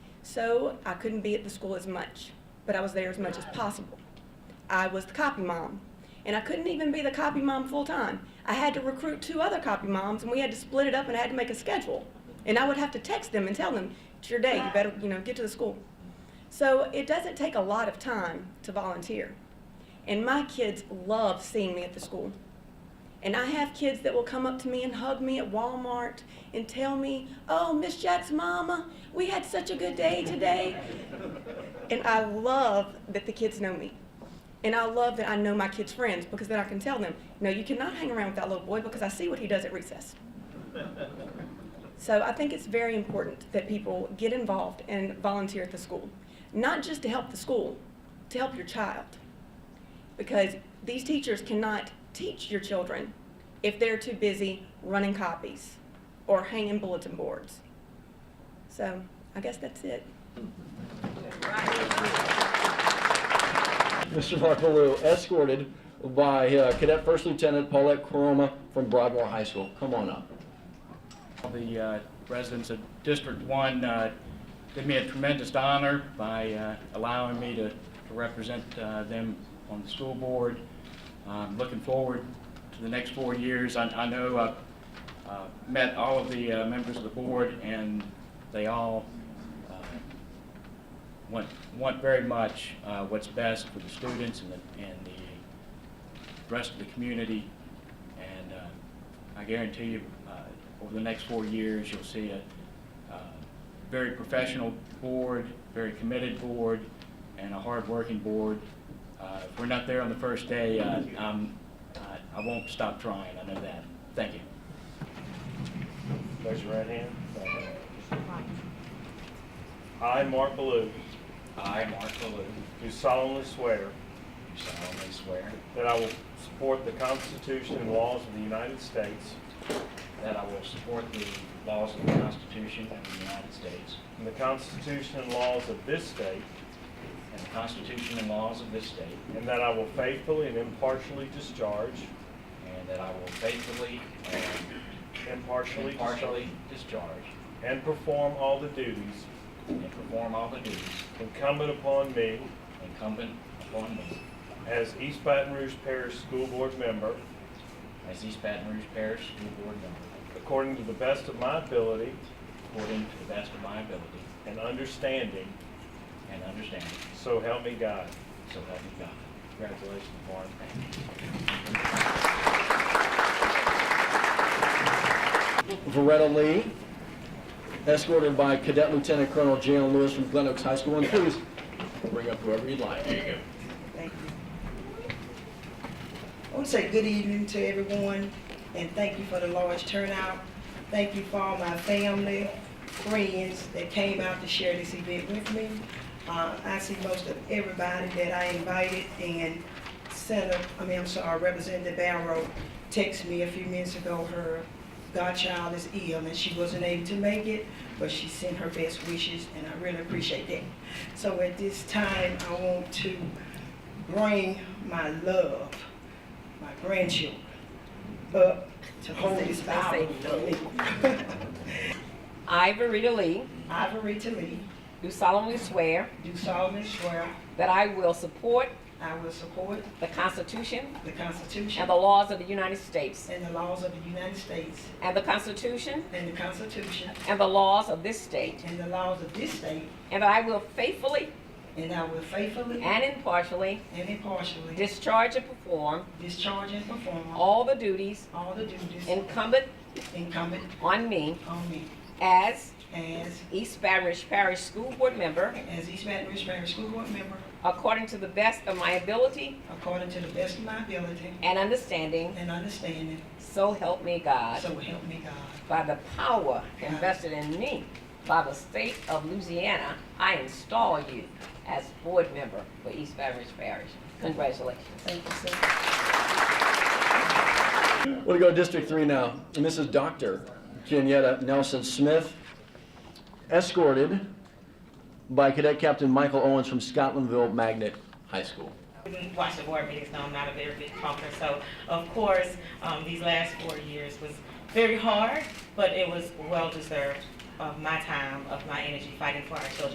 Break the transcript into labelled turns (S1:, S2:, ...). S1: So I couldn't be at the school as much, but I was there as much as possible. I was the copy mom, and I couldn't even be the copy mom full time. I had to recruit two other copy moms, and we had to split it up, and I had to make a schedule. And I would have to text them and tell them, "It's your day. You better, you know, get to the school." So it doesn't take a lot of time to volunteer, and my kids love seeing me at the school. And I have kids that will come up to me and hug me at Walmart and tell me, "Oh, Miss Jack's mama, we had such a good day today." and I love that the kids know me. And I love that I know my kids' friends because then I can tell them, "No, you cannot hang around with that little boy because I see what he does at recess." So I think it's very important that people get involved and volunteer at the school, not just to help the school, to help your child. Because these teachers cannot teach your children if they're too busy running copies or hanging bulletin boards. So I guess that's it.
S2: Mr. Buckaloo, escorted by uh, Cadet First Lieutenant Paulette Coroma from Broadmoor High School. Come on up.
S3: The uh, residents of District One uh, did me a tremendous honor by uh, allowing me to to represent uh, them on the school board. I'm Looking forward to the next four years. I- I know I've uh, met all of the uh, members of the board, and they all uh, want want very much uh, what's best for the students and the and the rest of the community. And uh, I guarantee you, uh, over the next four years, you'll see a uh, very professional board, very committed board, and a hard-working board. Uh, If we're not there on the first day, uh, I'm- I I won't stop trying, I know that. Thank you.
S4: Raise your right hand. I, Mark Ballou,
S3: I, Mark Baloo,
S4: do solemnly swear
S3: solemnly swear
S4: that I will support the Constitution and laws of the United States
S3: that I will support the laws of the Constitution of the United States
S4: and the Constitution and laws of this state,
S3: and the Constitution and laws of this state,
S4: and that I will faithfully and impartially discharge,
S3: and that I will faithfully and
S4: impartially discharge,
S3: impartially discharge
S4: and perform all the duties
S3: and perform all the duties
S4: incumbent upon me
S3: incumbent upon me
S4: as East Baton Rouge Parish School Board member,
S3: as East Baton Rouge Parish School Board member,
S4: according to the best of my ability
S3: according to the best of my ability
S4: and understanding,
S3: and understanding,
S4: so help me God.
S3: so help me God.
S4: Congratulations, Mark.
S2: Veretta Lee, escorted by Cadet Lieutenant Colonel Jalen Lewis from Glen Oaks High School. And please bring up whoever you'd like.
S5: Thank you. I want to say good evening to everyone, and thank you for the large turnout. Thank you for all my family, friends that came out to share this event with me. Uh, I see most of everybody that I invited, and Senator, I mean, I'm sorry, Representative Barrow texted me a few minutes ago, her godchild is ill, and she wasn't able to make it, but she sent her best wishes, and I really appreciate that. So at this time, I want to bring my love, my grandchildren, up to hold this power for me.
S6: I, Verita Lee,
S5: Ivory to me,
S6: do solemnly swear
S5: do solemnly swear
S6: that I will support
S5: I will support
S6: the Constitution
S5: the
S6: and
S5: Constitution
S6: the laws of the United States,
S5: and the laws of the United States
S6: and the Constitution
S5: and the Constitution
S6: and the laws of this state,
S5: and the laws of this state,
S6: and that I will faithfully
S5: and I will faithfully
S6: and impartially
S5: and impartially
S6: discharge and perform
S5: discharge and perform
S6: all the duties
S5: all the duties
S6: incumbent
S5: incumbent
S6: on me
S5: on me
S6: as
S5: as,
S6: East Baton Rouge Parish School Board member
S5: as East Baton Rouge Parish School Board member
S6: according to the best of my ability
S5: according to the best of my ability
S6: and understanding,
S5: and understanding,
S6: so help me God.
S5: So help me God.
S6: By the power invested in me by the state of Louisiana, I install you as board member for East Baton Rouge Parish. Congratulations.
S5: Thank you, sir.
S2: We're going to go to District 3 now. And this is Dr. Janietta Nelson Smith, escorted by Cadet Captain Michael Owens from Scotlandville Magnet High School.
S7: We watch the board meetings, know I'm not a very big talker, so of course, um, these last four years was very hard, but it was well-deserved of my time, of my energy fighting for our children.